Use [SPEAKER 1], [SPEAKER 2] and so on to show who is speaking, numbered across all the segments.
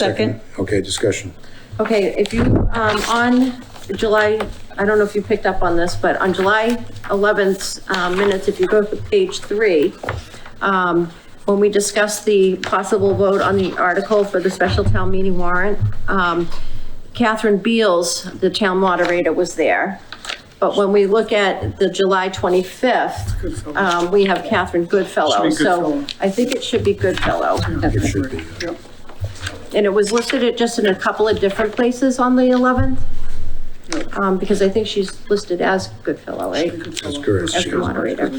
[SPEAKER 1] Second.
[SPEAKER 2] Okay, discussion.
[SPEAKER 1] Okay, if you, um, on July, I don't know if you picked up on this, but on July 11th, um, minutes, if you go to page three, um, when we discussed the possible vote on the article for the special town meeting warrant, um, Catherine Beals, the town moderator, was there. But when we look at the July 25th, um, we have Catherine Goodfellow.
[SPEAKER 3] Should be
[SPEAKER 1] So
[SPEAKER 3] Goodfellow.
[SPEAKER 1] I think it should be Goodfellow.
[SPEAKER 2] It should be.
[SPEAKER 3] Yeah.
[SPEAKER 1] And it was listed at just in a couple of different places on the 11th, um, because I think she's listed as Goodfellow, right?
[SPEAKER 3] That's
[SPEAKER 2] correct,
[SPEAKER 1] As the moderator.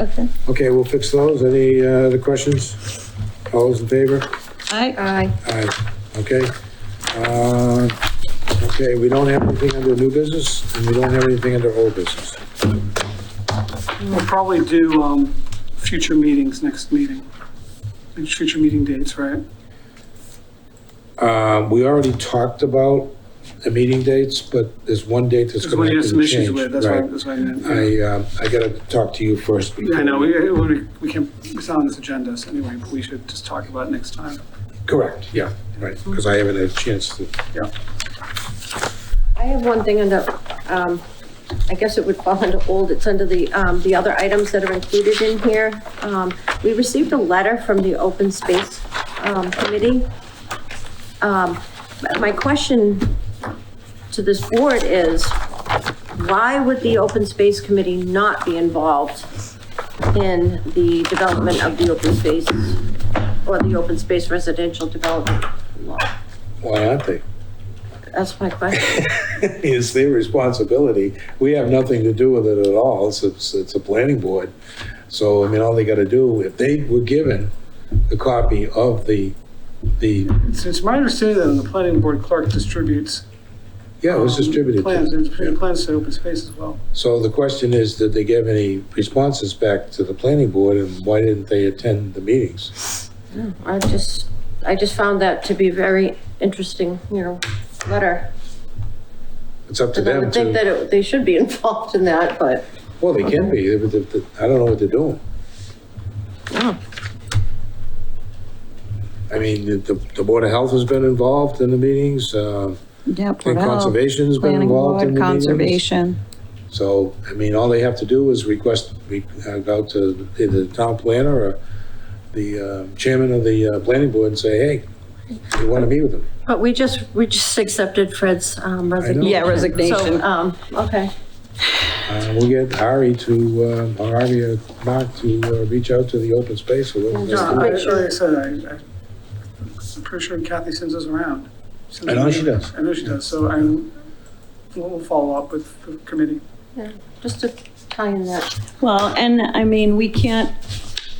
[SPEAKER 4] Okay.
[SPEAKER 2] Okay, we'll fix those. Any uh, other questions? All those in favor?
[SPEAKER 4] I,
[SPEAKER 1] Aye.
[SPEAKER 2] Aye. Okay. Uh, Okay, we don't have anything under new business, and we don't have anything under old business.
[SPEAKER 3] We'll probably do, um, future meetings next meeting, Like, future meeting dates, right?
[SPEAKER 2] Uh, We already talked about the meeting dates, but there's one date that's
[SPEAKER 3] That's what
[SPEAKER 2] going
[SPEAKER 3] we
[SPEAKER 2] to
[SPEAKER 3] have
[SPEAKER 2] have
[SPEAKER 3] some
[SPEAKER 2] to
[SPEAKER 3] issues
[SPEAKER 2] change.
[SPEAKER 3] with, that's why,
[SPEAKER 2] Right.
[SPEAKER 3] that's why I meant. yeah.
[SPEAKER 2] I, uh, I gotta talk to you first.
[SPEAKER 3] I know, we, we we can't, it's not on this agenda, so anyway, but we should just talk about it next time.
[SPEAKER 2] Correct, yeah, right, because I haven't had a chance to.
[SPEAKER 3] Yeah.
[SPEAKER 1] I have one thing under, um, I guess it would fall under old, it's under the, um, the other items that are included in here. Um, we received a letter from the Open Space, um, Committee. Um, but my question to this board is, why would the Open Space Committee not be involved in the development of the open spaces or the open space residential development law?
[SPEAKER 2] Why aren't they?
[SPEAKER 1] That's my question.
[SPEAKER 2] It's their responsibility. We have nothing to do with it at all. It's, it's, it's a planning board. So, I mean, all they gotta do, if they were given the copy of the, the,
[SPEAKER 3] It's, it's my understanding that the planning board clerk distributes.
[SPEAKER 2] yeah, it was
[SPEAKER 3] um,
[SPEAKER 2] Oh, distributed.
[SPEAKER 3] Plans,
[SPEAKER 2] to
[SPEAKER 3] and
[SPEAKER 2] them. Yeah.
[SPEAKER 3] plans to open space as well.
[SPEAKER 2] So the question is, did they give any responses back to the planning board and why didn't they attend the meetings?
[SPEAKER 1] I just, I just found that to be very interesting, you know, letter.
[SPEAKER 2] It's up to
[SPEAKER 1] And I
[SPEAKER 2] them
[SPEAKER 1] would think that
[SPEAKER 2] to,
[SPEAKER 1] it- they should be involved in that, but,
[SPEAKER 2] well, they can be. They- they- they- I don't know what they're doing.
[SPEAKER 1] yeah.
[SPEAKER 2] I mean, the, the the Board of Health has been involved in the meetings, uh,
[SPEAKER 4] yeah,
[SPEAKER 2] and
[SPEAKER 4] Port Health,
[SPEAKER 2] Conservation's been
[SPEAKER 4] Planning
[SPEAKER 2] involved in
[SPEAKER 4] Board,
[SPEAKER 2] the meetings.
[SPEAKER 4] Conservation.
[SPEAKER 2] So, I mean, all they have to do is request, we uh, go to either the town planner or the uh, chairman of the uh, planning board and say, hey, we want to meet with them.
[SPEAKER 1] But we just, we just accepted Fred's um, resignation.
[SPEAKER 2] Yeah,
[SPEAKER 4] resignation.
[SPEAKER 1] So, um, okay,
[SPEAKER 2] Uh, We'll get Ari to, um, or Ari or Mark to uh, reach out to the open space or whatever.
[SPEAKER 3] No,
[SPEAKER 2] they
[SPEAKER 3] I-
[SPEAKER 1] Pretty sure.
[SPEAKER 3] Like I said, I, I- I'm pretty sure Kathy sends us around.
[SPEAKER 2] I know she does.
[SPEAKER 3] I know she does, so I'm, we'll we'll follow up with the committee.
[SPEAKER 1] just to tie in that.
[SPEAKER 4] Well, and I mean, we can't,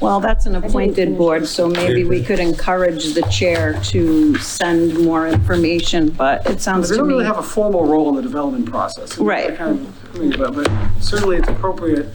[SPEAKER 4] well, that's an appointed board, so maybe we could encourage the chair to send more information, but it sounds
[SPEAKER 3] They
[SPEAKER 4] to
[SPEAKER 3] don't really
[SPEAKER 4] me.
[SPEAKER 3] have a formal role in the development process. and
[SPEAKER 4] Right.
[SPEAKER 3] that kind of thing, But but certainly it's appropriate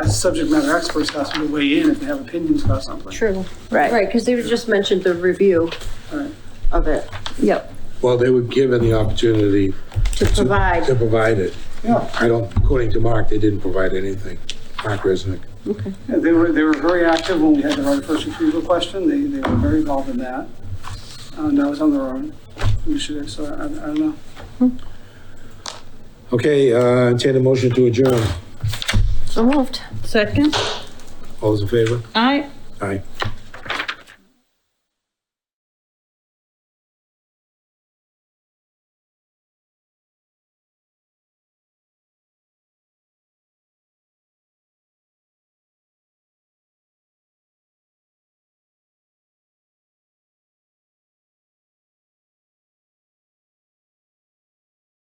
[SPEAKER 3] as subject matter experts to ask them to weigh in if they have opinions about something.
[SPEAKER 1] True. Right,
[SPEAKER 4] Right,
[SPEAKER 1] because they just mentioned the review
[SPEAKER 3] Right.
[SPEAKER 1] of it,
[SPEAKER 4] yep.
[SPEAKER 2] Well, they were given the opportunity
[SPEAKER 1] to
[SPEAKER 2] to
[SPEAKER 1] provide.
[SPEAKER 2] provide it.
[SPEAKER 3] Yeah,
[SPEAKER 2] I don't, according to Mark, they didn't provide anything. Mark Resnick.
[SPEAKER 3] yeah, they were, they were very active when we had the right of first refusal question. They, they were very involved in that. And I was on their own initiative, so I, I don't know.
[SPEAKER 2] Okay, uh, entertain a motion to adjourn.
[SPEAKER 1] So moved.
[SPEAKER 4] Second?
[SPEAKER 2] All those in favor?
[SPEAKER 4] Aye.
[SPEAKER 2] Aye.